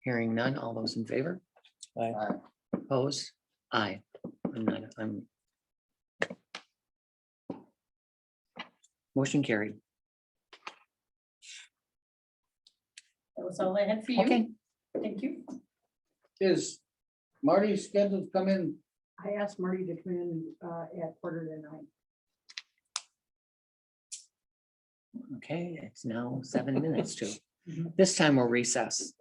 Hearing none, all those in favor? Aye. Opposed? Aye. I'm not, I'm. Motion carried. That was all I had for you. Okay, Thank you. Is Marty scheduled to come in? I asked Marty to come in uh, at quarter to nine. okay, it's now seven minutes to. Mm-hmm. Mhm. This time we'll recess.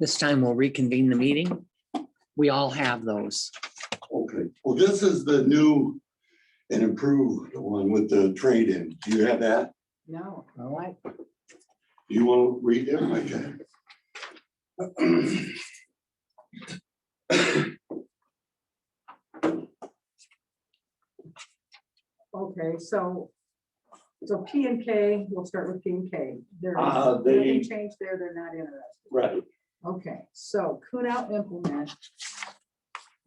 This time we'll reconvene the meeting. We all have those. Okay, well, this is the new and improved one with the trade-in. Do you have that? No, No. I- Do you want to read it? I can. okay, so, so P and K, we'll start with P and K. They're, Uh, they- nothing changed there, they're not interested. Right. Okay, so Kunow Implement.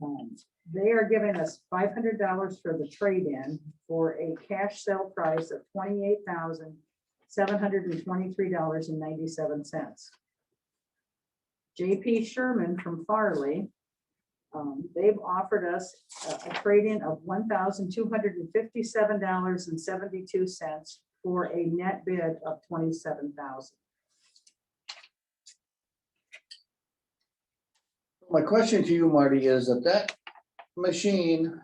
um, They are giving us five hundred dollars for the trade-in for a cash sale price of twenty-eight thousand seven hundred and twenty-three dollars and ninety-seven cents. JP Sherman from Farley. um, They've offered us a- a trade-in of one thousand two hundred and fifty-seven dollars and seventy-two cents for a net bid of twenty-seven thousand. My question to you, Marty, is that that machine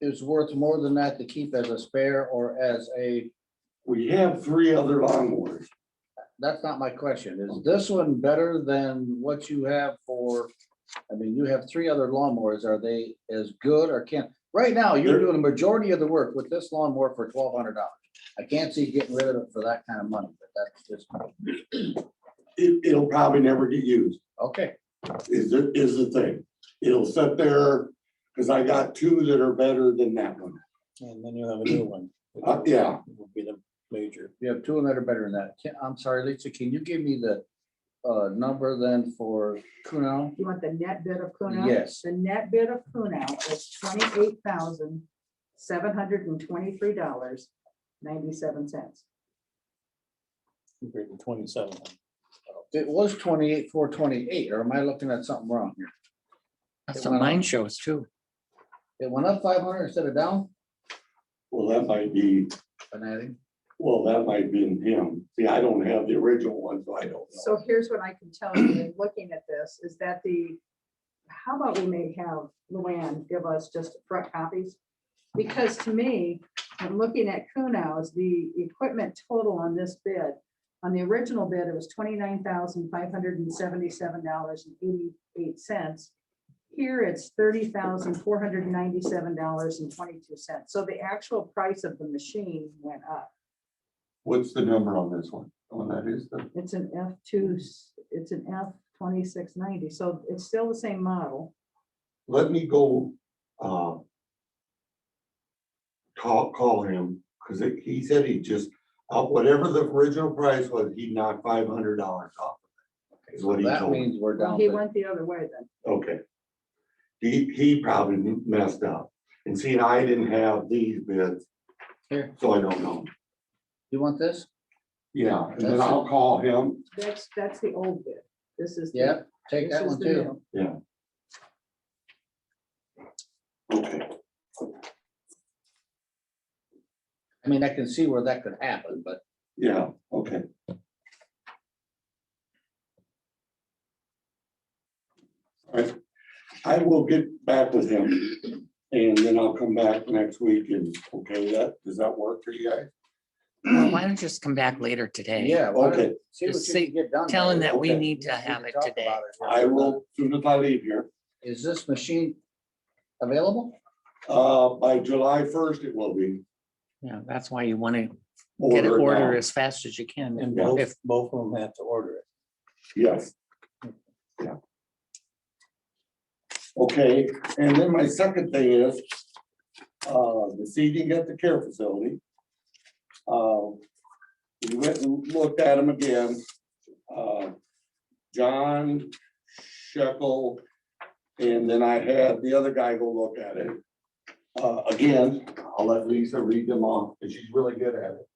is worth more than that to keep as a spare or as a, We have three other lawnmowers. that's not my question. Is this one better than what you have for? I mean, you have three other lawnmowers. Are they as good or can't? Right now, you're They're- doing a majority of the work with this lawnmower for twelve hundred dollars. I can't see getting rid of it for that kind of money, but that's just, It, it'll probably never get used, okay, is, the- is the thing. It'll sit there, because I got two that are better than that one. And then you'll have a new one. Uh, yeah. Will be the major. you have two that are better than that. Can- I'm sorry, Lisa, can you give me the uh number then for Kuno? You want the net bid of Kunow? Yes. The net bid of Kunow is twenty-eight thousand, seven hundred and twenty-three dollars, ninety-seven cents. Hundred and twenty-seven. It was twenty-eight, four twenty-eight, or am I looking at something wrong here? That's what mine shows too. It went up five hundred instead of down, Well, that might be, Fanatic. well, that might be in him. See, I don't have the original one, so I don't know. So here's what I can tell you in looking at this, is that the, how about we may have Luann give us just front copies? Because to me, I'm looking at Kunau's, the equipment total on this bid, on the original bid, it was twenty-nine thousand, five hundred and seventy-seven dollars and eighty-eight cents. Here it's thirty thousand, four hundred and ninety-seven dollars and twenty-two cents. So the actual price of the machine went up. What's the number on this one? Oh, that is the. It's an F two, it's an F twenty-six ninety, so it's still the same model. let me go, uh. Call, call him, cause it- he said he just, uh, whatever the original price was, he knocked five hundred dollars off. Is what he That told me. means we're Well, down. he to- went the other way then. Okay. He, he probably messed up. And see, I didn't have these bids. Here. So I don't know. You want this? Yeah, and then I'll call him. That's, that's the old bid. This is. the- Yep, take This that is one the too. new. Okay. I mean, I can see where that could happen, but Yeah, okay. All right, I will get back with him and then I'll come back next week and, okay, that, does that work for you guys? Why don't you just come back later today? yeah. why don't- Okay. See what Just you say- can get done. Tell him there. that we Okay. need to We can have it talk today. about it. I will, soon as I leave here, Is this machine available? uh, by July first it will be. Yeah, that's why you want to get it ordered now. ordered as fast as you can. And Yeah. both, both of them have to order it. Yes. Yeah. Okay, and then my second thing is, uh, the seating at the care facility. Uh, We went and looked at them again. Uh, John Shekel, and then I had the other guy go look at it. Uh, Again, I'll let Lisa read them off, because she's really good at it.